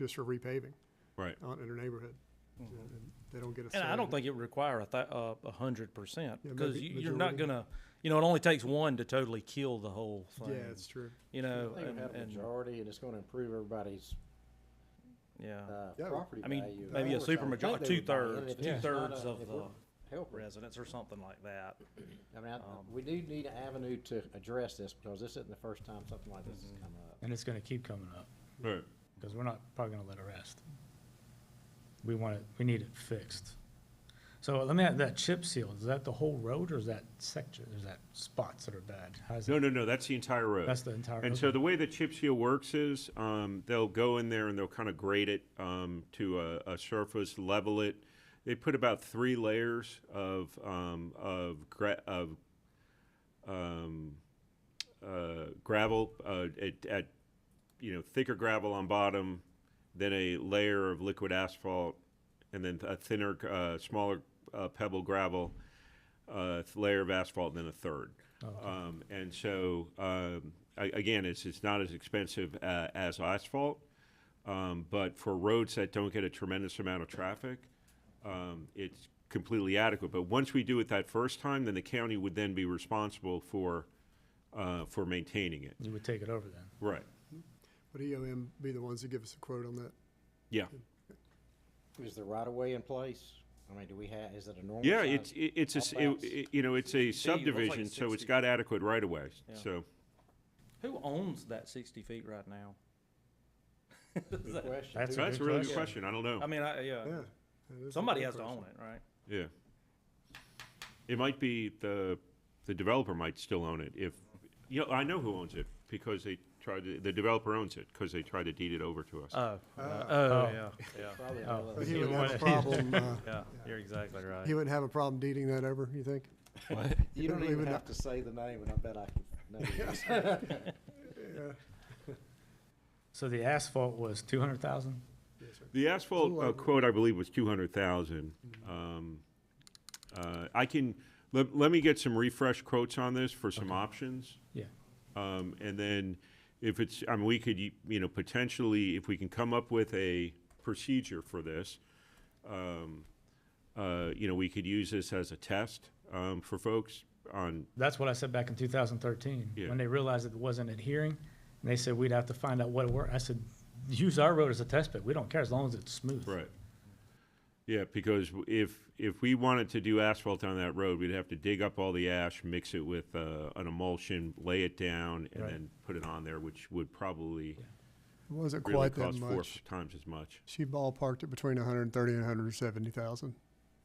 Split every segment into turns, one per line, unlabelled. just for repaving
Right.
out in their neighborhood. You
Mm-hmm.
know, and They don't get a say.
And I
in
don't
it.
think it would require a th- uh, a hundred percent
Yeah,
because
maybe
you, you're not
majority.
gonna, you know, it only takes one to totally kill the whole thing.
Yeah, it's true.
you
I
know,
think
and,
we have a
and-
majority, and it's gonna improve everybody's,
yeah,
uh,
Yeah.
property
I mean,
value.
maybe a
Of course, I
supermajor-
would think they would buy
two-thirds-
in, and if it's
two-thirds
not a-
of
if we're
the
helping,
residents or something like that.
I
um,
mean, I, we do need an avenue to address this, because this isn't the first time something like this has
Mm-hmm.
come up.
And it's gonna keep coming up,
Right.
because we're not probably gonna let it rest. We want it, we need it fixed. So let me add, that chip seal, is that the whole road or is that section, is that spots that are bad? How's
No,
it,
no, no, that's the entire road.
that's the entire?
And so the way the chip seal works is, um, they'll go in there and they'll kind of grade it, um, to a, a surface, level it. They put about three layers of, um, of gra- of, um, uh, gravel, uh, at, at, you know, thicker gravel on bottom, then a layer of liquid asphalt, and then a thinner, uh, smaller, uh, pebble gravel, uh, layer of asphalt, then a third. Um, and so, um, a- again, it's, it's not as expensive uh, as asphalt, um, but for roads that don't get a tremendous amount of traffic, um, it's completely adequate. But once we do it that first time, then the county would then be responsible for, uh, for maintaining it.
You would take it over then?
Right.
Would EOM E be the ones that give us a quote on that?
Yeah.
Is the right of way in place? I mean, do we have, is it a normal?
Yeah,
size?
it's, it- it's, a s-
How fast?
it- it- you know, it's a
See, it looks like
subdivision, so it's
60.
got adequate right of way,
Yeah.
so.
Who owns that sixty feet right now? Is
Good
that-
question.
That's
Who-
a
That's a
good
really good
question.
question. I don't
I
know.
mean, I, yeah,
Yeah. that is a
somebody
good
has to
question.
own it, right?
Yeah. It might be the, the developer might still own it if, you know, I know who owns it because they tried to, the developer owns it because they tried to deed it over to us.
Oh,
Ah.
oh,
Oh.
yeah, yeah,
Probably
Oh.
another-
But he would
You
have a
want-
problem, uh,
yeah. You're exactly right.
he wouldn't have a problem deeding that over, you think?
You don't
We would
even have
not-
to say the name, and I bet I can know who it is.
So the asphalt was two hundred thousand?
The asphalt uh,
over.
quote, I believe, was two hundred thousand.
Mm-hmm.
Um, uh, I can, let, let me get some refresh quotes on this for some options.
Yeah.
Um, and then if it's, I mean, we could, you know, potentially, if we can come up with a procedure for this, um, uh, you know, we could use this as a test, um, for folks on,
That's what I said back in two thousand thirteen,
Yeah.
when they realized it wasn't adhering, and they said we'd have to find out what it were. I said, use our road as a test bed. We don't care as long as it's smooth.
right. Yeah, because w- if, if we wanted to do asphalt on that road, we'd have to dig up all the ash, mix it with, uh, an emulsion, lay it down, and
Right.
then put it on there, which would probably
It wasn't
really
quite that
cost four
much.
times as much.
She ballparked it between a hundred and thirty and a hundred and seventy thousand.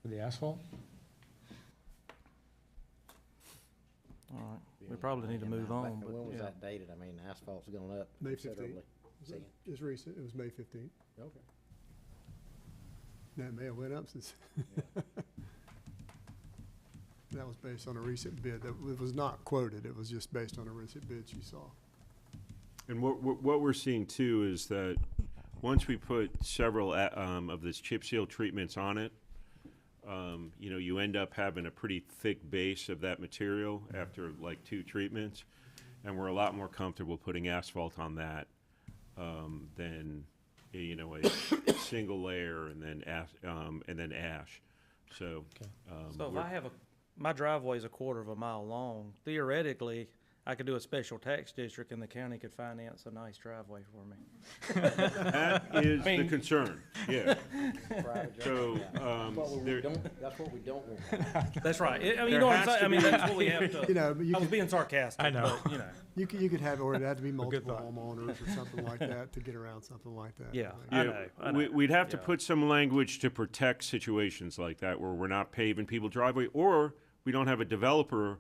For the asphalt?
All right, we probably need to
And I-
move
but
on,
When
but
was
yeah.
that dated? I mean, asphalt's gone up
May 15th.
considerably. See?
It's recent, it was May fifteenth.
Okay.
That may have went up since. That was based on a recent bid. That w- was not quoted. It was just based on a recent bid she saw.
And what, what, what we're seeing too is that once we put several a- um, of this chip seal treatments on it, um, you know, you end up having a pretty thick base of that material after like two treatments. And we're a lot more comfortable putting asphalt on that um, than, y- you know, a single layer and then ash, um, and then ash. So,
Okay.
um,
So if
we're-
I have a, my driveway's a quarter of a mile long, theoretically, I could do a special tax district and the county could finance a nice driveway for me.
that is the
mean-
concern, yeah.
Private
So,
drive.
um,
That's what we
there,
don't, that's what we don't want.
That's right. I- I mean,
There
you know what
has
I'm saying?
to
I mean,
be-
that's what we have
You
to,
know, but you
I was
could,
being sarcastic,
I know.
but, you know,
you could, you could have, or it'd have to be multiple
thought.
homeowners or something like that to get around something like that. I
yeah,
think.
I
Yeah,
know, I
we-
know.
We'd have to
Yeah.
put some language to protect situations like that where we're not paving people driveway, or we don't have a developer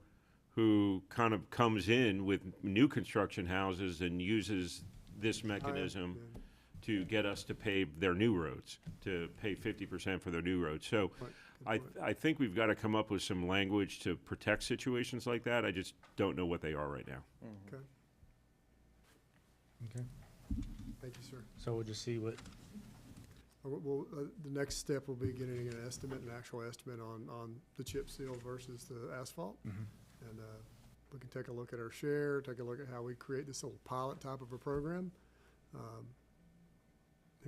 who kind of comes in with new construction houses and uses this mechanism to get us to pave their new roads, to pay fifty percent for their new roads. So I, I think we've got to come up with some language to protect situations like that. I just don't know what they are right now.
Okay.
Okay.
Thank you, sir.
So we'll just see what,
Uh, we- Well, uh, the next step will be getting an estimate, an actual estimate on, on the chip seal versus the asphalt. And uh, we can take a look at our share, take a look at how we create this little pilot type of a program. Um,